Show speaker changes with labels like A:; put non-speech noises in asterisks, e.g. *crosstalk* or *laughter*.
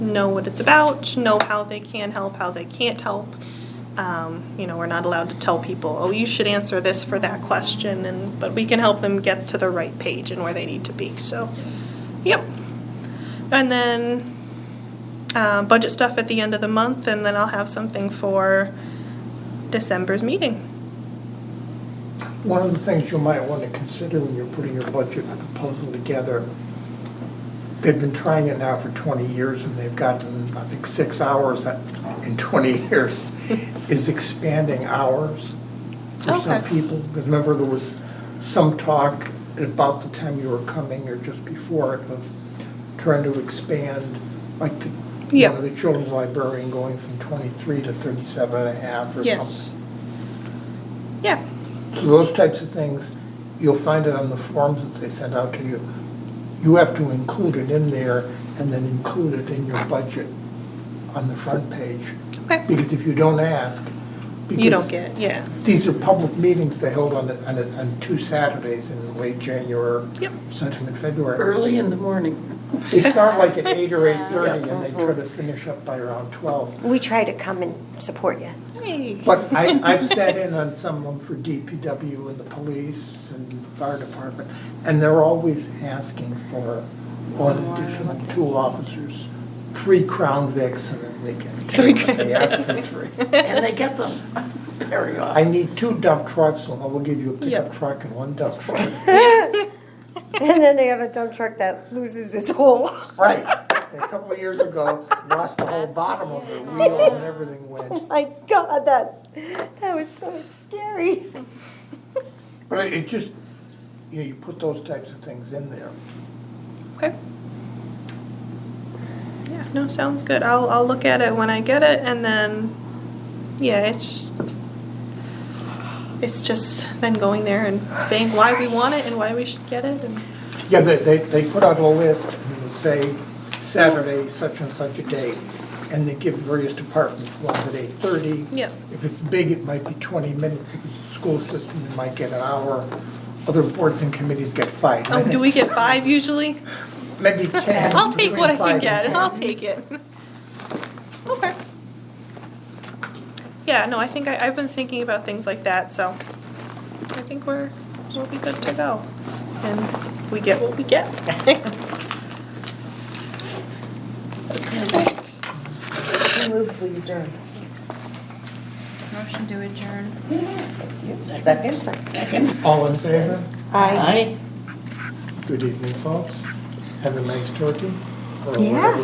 A: know what it's about, know how they can help, how they can't help. Um, you know, we're not allowed to tell people, oh, you should answer this for that question, and but we can help them get to the right page and where they need to be. So, yep. And then uh, budget stuff at the end of the month, and then I'll have something for December's meeting.
B: One of the things you might want to consider when you're putting your budget proposal together, they've been trying it now for twenty years and they've gotten, I think, six hours at- in twenty *laughs* years, is expanding hours for some
A: Okay.
B: people. Because remember, there was some talk about the time you were coming or just before it of trying to expand, like the, you
A: Yeah.
B: know, the children's librarian going from twenty-three to thirty-seven and a half or something.
A: Yes. Yeah.
B: So those types of things, you'll find it on the forms that they send out to you. You have to include it in there and then include it in your budget on the front page.
A: Okay.
B: Because if you don't ask.
A: You don't
B: because
A: get, yeah.
B: These are public meetings they held on, the- on, the- on two Saturdays in late January.
A: Yep.
B: Sometime in February.
C: Early in the morning.
B: They start like at eight or eight-thirty
C: Yeah.
B: and they try to finish up by around twelve.
D: We try to come and support you.
A: Hey.
B: But *laughs* I, I've sat in on some of them for DPW and the police and fire department, and they're always asking for one additional two officers, three Crown Vics, and then they get two, but they ask for three.
C: And they get them *laughs* very
B: I
C: often.
B: need two dump trucks, and I will give you a pickup
A: Yeah.
B: truck and one dump truck.
D: *laughs* And then they have a dump truck that loses its whole. *laughs*
B: Right, a couple of years ago, lost the whole bottom of the wheel and everything went.
D: Oh My God, that that was so scary.
B: But it- it just, you know, you put those types of things in there.
A: Okay. Yeah, no, sounds good. I'll, I'll look at it when I get it and then, yeah, it's, it's just then going there and saying why we want it and why we should get it and,
B: Yeah, they, they, they put out a list and they say Saturday, such and such a date, and they give various departments, one's at eight thirty.
A: Yeah.
B: If it's big, it might be twenty minutes, if it's the school system, it might get an hour, other boards and committees get five
A: oh,
B: minutes.
A: do we get five usually? *laughs*
B: Maybe ten.
A: I'll take what I
B: between five
A: can get,
B: and 10.
A: I'll take it. Okay. Yeah, no, I think I, I've been thinking about things like that, so I think we're, we'll be good to go. And we get what we get. *laughs*
E: Who moves will adjourn?
F: Motion to adjourn.
E: Second? Second.
B: All in favor?
D: I.
C: Aye.
B: Good evening, folks. Have a nice turkey. or
D: Yeah.
B: whatever